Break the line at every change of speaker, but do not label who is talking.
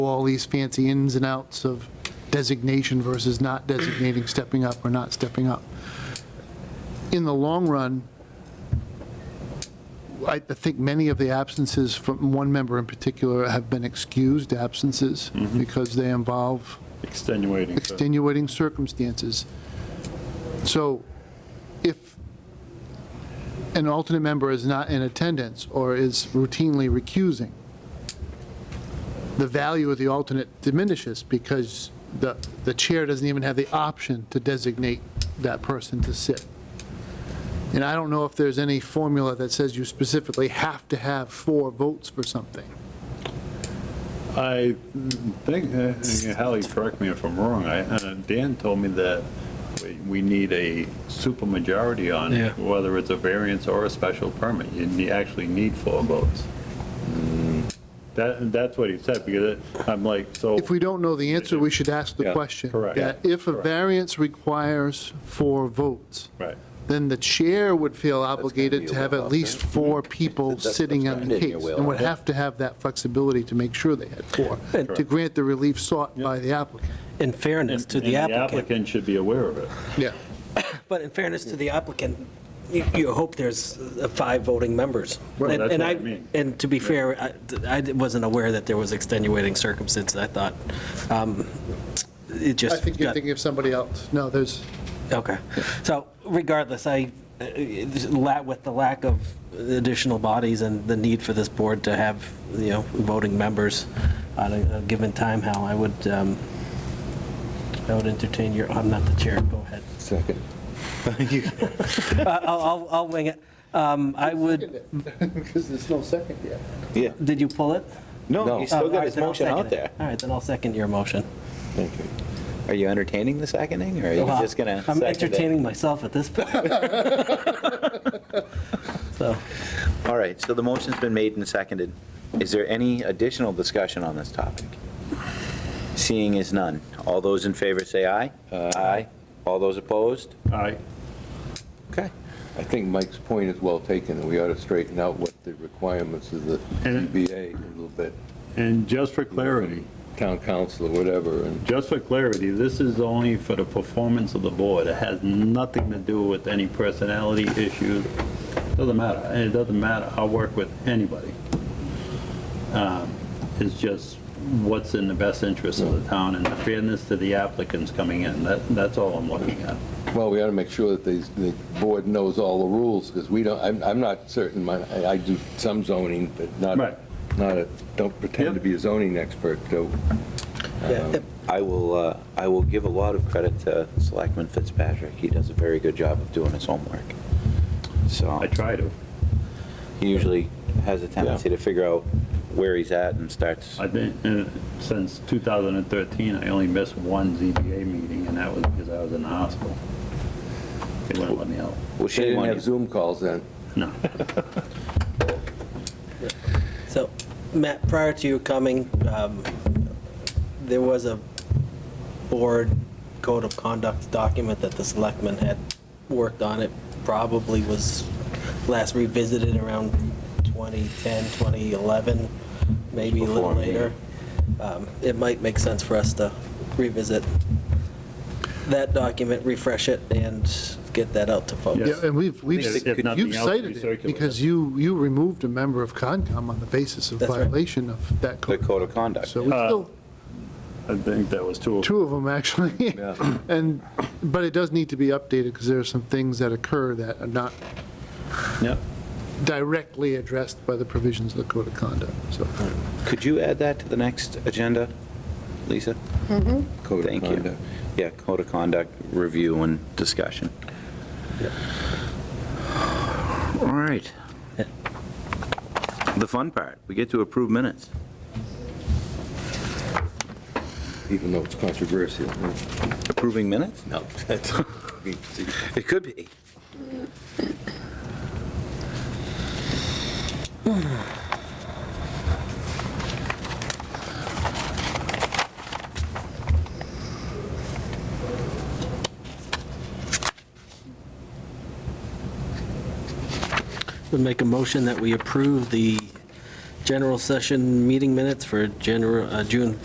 all these fancy ins and outs of designation versus not designating, stepping up or not stepping up. In the long run, I I think many of the absences from one member in particular have been excused absences because they involve
extenuating. so-
extenuating circumstances. So if an alternate member is not in attendance or is routinely recusing, the value of the alternate diminishes because the, the chair doesn't even have the option to designate that person to sit. And I don't know if there's any formula that says you specifically have to have four votes for something.
I think, uh, Hallie, correct me if I'm wrong, I, uh, Dan told me that we- we need a supermajority on
Yeah.
it, whether it's a variance or a special permit. You ne- actually need four votes. Mm. That, that's what he said, because it- I'm like, so,
If we don't know the answer, we should ask the
Yeah,
question.
correct.
That if a
Correct.
variance requires four votes,
right,
then the chair would feel obligated
be
to
a
have
well,
at least
okay.
four people
That's-
sitting
that's
on
fine.
the
Yeah, yeah,
case,
well,
and would
yeah.
have to have that flexibility to make sure they had four, to
Correct.
grant the relief sought by the applicant.
In fairness
and
to
and
the
the
applicant,
applicant should be aware of it.
Yeah.
but in fairness to the applicant, you you hope there's uh, five voting members.
Right,
And-
that's
and
what I mean.
And to be fair, I- I wasn't aware that there was extenuating circumstances, I thought, um, it
I
just.
think you're
got-
thinking of somebody else. No, there's,
Okay, so regardless, I, uh, la- with the lack of additional bodies and the need for this board to have, you know, voting members on a a given time, Hal, I would, um, I would entertain your, I'm not the chair, go ahead.
Second.
Uh, I'll, I'll- I'll wing it. Um, I would,
because there's no second yet.
Yeah.
did you pull it?
No, he's
Oh,
still
all right,
got his
then I'll
motion out
second it.
there.
All right, then I'll second your motion.
Thank you. Are you entertaining the seconding, or are you
Well,
just gonna?
I'm
second it?
entertaining myself at this point. So,
All right, so the motion's been made and seconded. Is there any additional discussion on this topic? Seeing is none. All those in favor say aye. Aye. All those opposed?
I,
Okay.
I think Mike's point is well taken, and we ought to straighten out what the requirements of the
And-
ZBA a little bit.
and just for clarity,
Town council or whatever, and
Just for clarity, this is only for the performance of the board. It has nothing to do with any personality issues. Doesn't matter. It doesn't matter. I'll work with anybody. Um, It's just what's in the best interest of the town and the fairness to the applicants coming in. That, that's all I'm looking at.
Well, we ought to make sure that the, the board knows all the rules, because we don't, I'm, I'm not certain, my, I I do some zoning, but not,
Right.
not, a- don't pretend to be a zoning expert, Um, so.
yeah,
I will, uh, I will give a lot of credit to Selectman Fitzpatrick. He does a very good job of doing his homework. So
I try to.
he usually has a tendency to figure out where he's at and starts.
I think, uh, since 2013, I only missed one ZBA meeting, and that was because I was in the hospital. They wouldn't let me out.
Well,
They
shame
didn't
on you.
have Zoom calls then.
No.
So, Matt, prior to you coming, um, there was a board code of conduct document that the selectmen had worked on. It probably was last revisited around 2010, 2011, maybe a little
Before me.
later. Um, It might make sense for us to revisit that document, refresh it, and get that out to folks.
Yeah, and we've, we've,
If- if nothing
you've
else,
cited
we
it
circulate
because you, you removed a member of Concom on the basis of
That's right.
violation of that
the
code.
code of conduct.
So we still,
I think that was two.
two of them actually. And, but it does need to be updated because there are some things that occur that are not
Yep.
directly addressed by the provisions of the code of conduct, so.
Could you add that to the next agenda, Lisa?
Code of
Thank you.
conduct.
Yeah, code of conduct, review and discussion. All right. The fun part, we get to approve minutes.
Even though it's controversial.
Approving minutes?
No.
It could be.
Would make a motion that we approve the general session meeting minutes for general, uh, June